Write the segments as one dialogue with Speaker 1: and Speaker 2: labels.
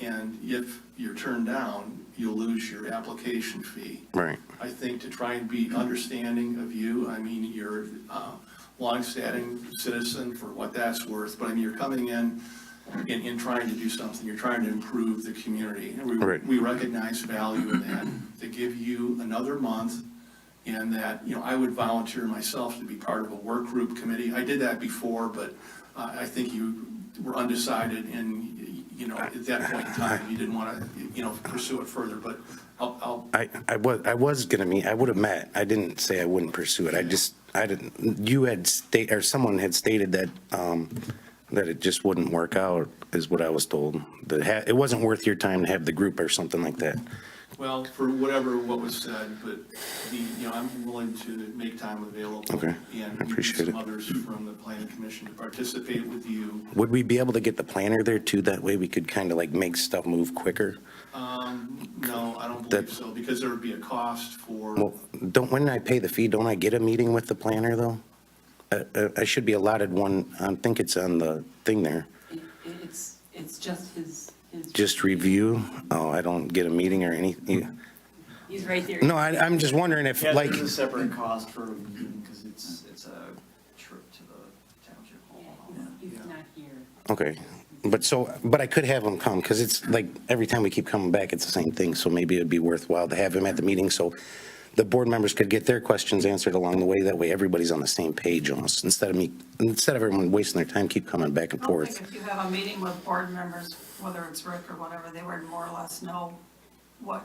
Speaker 1: And if you're turned down, you'll lose your application fee.
Speaker 2: Right.
Speaker 1: I think to try and be understanding of you, I mean, you're a longstanding citizen for what that's worth, but I mean, you're coming in and, and trying to do something, you're trying to improve the community. And we,
Speaker 2: Right.
Speaker 1: we recognize value in that, to give you another month and that, you know, I would volunteer myself to be part of a work group committee. I did that before, but uh, I think you were undecided and, you know, at that point in time, you didn't want to, you know, pursue it further, but I'll, I'll
Speaker 2: I, I was, I was gonna meet, I would have met. I didn't say I wouldn't pursue it. I just, I didn't, you had state, or someone had stated that, um, that it just wouldn't work out, is what I was told. That ha, it wasn't worth your time to have the group or something like that.
Speaker 1: Well, for whatever what was said, but the, you know, I'm willing to make time available.
Speaker 2: Okay, I appreciate
Speaker 1: And maybe some
Speaker 2: it.
Speaker 1: others from the planning commission to participate with you.
Speaker 2: Would we be able to get the planner there too? That way we could kind of like make stuff move quicker?
Speaker 1: No, I don't
Speaker 2: That-
Speaker 1: believe so, because there would be a cost for,
Speaker 2: Well, don't, when I pay the fee, don't I get a meeting with the planner though? Uh, uh, I should be allotted one, I think it's on the thing there.
Speaker 3: It- It's, it's just his, his.
Speaker 2: Just review? Oh, I don't get a meeting or anything?
Speaker 3: He's right there.
Speaker 2: No, I, I'm just wondering if
Speaker 4: Yeah,
Speaker 2: like,
Speaker 4: there's a separate cost for a meeting, because it's, it's a trip to the township
Speaker 3: Yeah,
Speaker 4: hall.
Speaker 3: He's he's not here.
Speaker 2: okay. But so, but I could have him come because it's like every time we keep coming back, it's the same thing. So maybe it'd be worthwhile to have him at the meeting so the board members could get their questions answered along the way. That way everybody's on the same page almost instead of me, instead of everyone wasting their time, keep coming back and
Speaker 5: I don't
Speaker 2: forth.
Speaker 5: think if you have a meeting with board members, whether it's Rick or whatever, they would more or less know what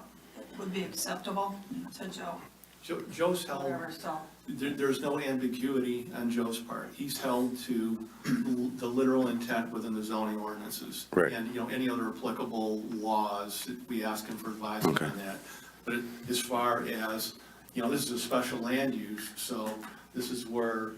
Speaker 5: would be acceptable to Joe,
Speaker 1: Jo- Joe's held,
Speaker 5: whatever, so.
Speaker 1: there, there's no ambiguity on Joe's part. He's held to the literal intent within the zoning ordinances.
Speaker 2: Right.
Speaker 1: And, you know, any other applicable laws, we ask him for advice on
Speaker 2: Okay.
Speaker 1: that. But as far as, you know, this is a special land use, so this is where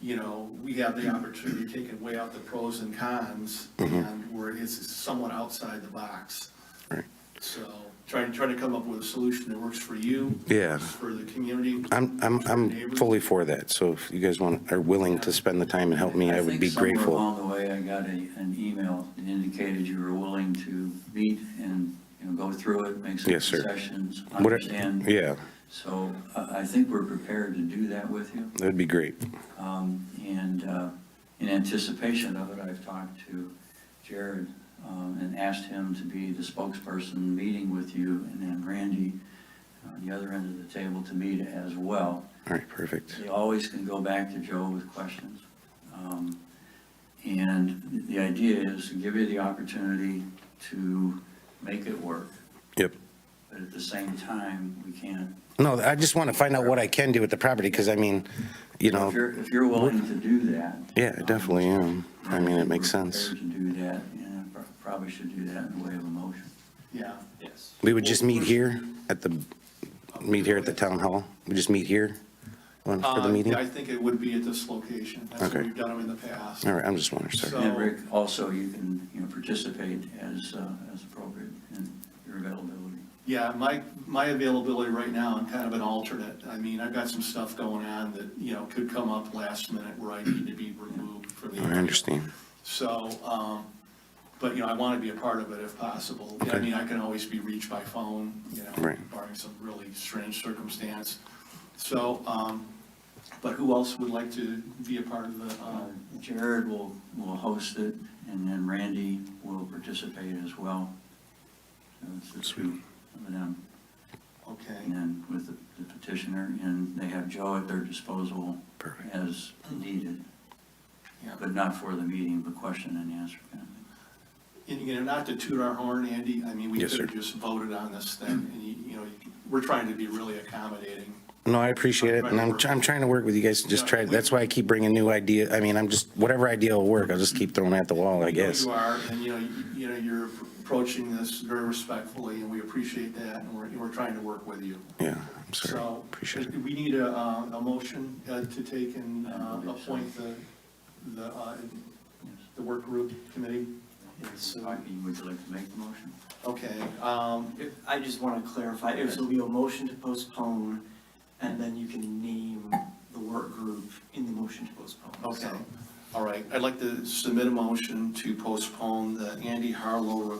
Speaker 1: you know, we have the opportunity to take and weigh out the pros and cons,
Speaker 2: Mm-hmm.
Speaker 1: and where it's somewhat outside the box.
Speaker 2: Right.
Speaker 1: So, trying, trying to come up with a solution that works for you.
Speaker 2: Yeah.
Speaker 1: For the community.
Speaker 2: I'm, I'm, I'm fully for that. So if you guys want, are willing to spend the time and help me, I would be
Speaker 4: think somewhere
Speaker 2: grateful.
Speaker 4: along the way, I got a, an email that indicated you were willing to meet and, you know, go through it, make some
Speaker 2: Yes, sir.
Speaker 4: concessions,
Speaker 2: What-
Speaker 4: understand.
Speaker 2: Yeah,
Speaker 4: So I, I think we're prepared to do that with you.
Speaker 2: that'd be great.
Speaker 4: Um, And uh, in anticipation of it, I've talked to Jared um, and asked him to be the spokesperson meeting with you and then Randy on the other end of the table to meet as well.
Speaker 2: All right, perfect.
Speaker 4: You always can go back to Joe with questions. Um, And the idea is to give you the opportunity to make it work,
Speaker 2: Yep.
Speaker 4: but at the same time, we can't.
Speaker 2: No, I just want to find out what I can do with the property because I mean, you know.
Speaker 4: If you're, if you're willing to do that.
Speaker 2: Yeah, I
Speaker 4: um,
Speaker 2: definitely am. I mean, it makes
Speaker 4: We're
Speaker 2: sense.
Speaker 4: prepared to do that, and pro- probably should do that in the way of a motion.
Speaker 1: Yeah. Yes.
Speaker 2: We would just meet here at the, meet here at the town hall? We just meet here on- for the meeting?
Speaker 1: Uh, I think it would be at this location. That's where
Speaker 2: Okay.
Speaker 1: we've done them in the past.
Speaker 2: All right, I'm just wondering,
Speaker 1: So-
Speaker 2: sorry.
Speaker 4: And Rick, also, you can, you know, participate as, uh, as appropriate in your availability.
Speaker 1: Yeah, my, my availability right now, I'm kind of an alternate. I mean, I've got some stuff going on that, you know, could come up last minute where I need to be removed from the.
Speaker 2: I understand.
Speaker 1: So, um, but, you know, I want to be a part of it if possible. I mean, I can always be reached by phone, you know,
Speaker 2: Right.
Speaker 1: barring some really strange circumstance. So, um, but who else would like to be a part of the,
Speaker 4: Uh,
Speaker 1: um,
Speaker 4: Jared will, will host it, and then Randy will participate as well. So it's the two of them, and
Speaker 1: okay,
Speaker 4: then with the the petitioner, and they have Joe at their disposal
Speaker 2: Perfect.
Speaker 4: as needed,
Speaker 1: yeah.
Speaker 4: but not for the meeting, but question and answer kind of thing.
Speaker 1: And, you know, not to toot our horn, Andy, I mean, we
Speaker 2: Yes,
Speaker 1: could have
Speaker 2: sir.
Speaker 1: just voted on this thing, and, you you know, we're trying to be really accommodating.
Speaker 2: No, I appreciate it, and I'm, try- I'm trying to work with you guys to just try, that's why I keep bringing new idea. I mean, I'm just, whatever idea will work, I'll just keep throwing it at the wall, I
Speaker 1: You know
Speaker 2: guess.
Speaker 1: You are, and, you know, you- you know, you're approaching this very respectfully, and we appreciate that, and we're, and we're trying to work with you.
Speaker 2: Yeah, I'm sorry.
Speaker 1: So,
Speaker 2: Appreciate it.
Speaker 1: we need a, uh, a motion uh, to take and
Speaker 4: I
Speaker 1: uh,
Speaker 4: believe so.
Speaker 1: appoint the, the, uh, the work group committee.
Speaker 4: So, I mean, would you like to make the motion?
Speaker 1: Okay, um,
Speaker 6: If- I just want to clarify, it will be a motion to postpone, and then you can name the work group in the motion to postpone.
Speaker 1: okay,
Speaker 6: So-
Speaker 1: all right. I'd like to submit a motion to postpone the Andy Harlow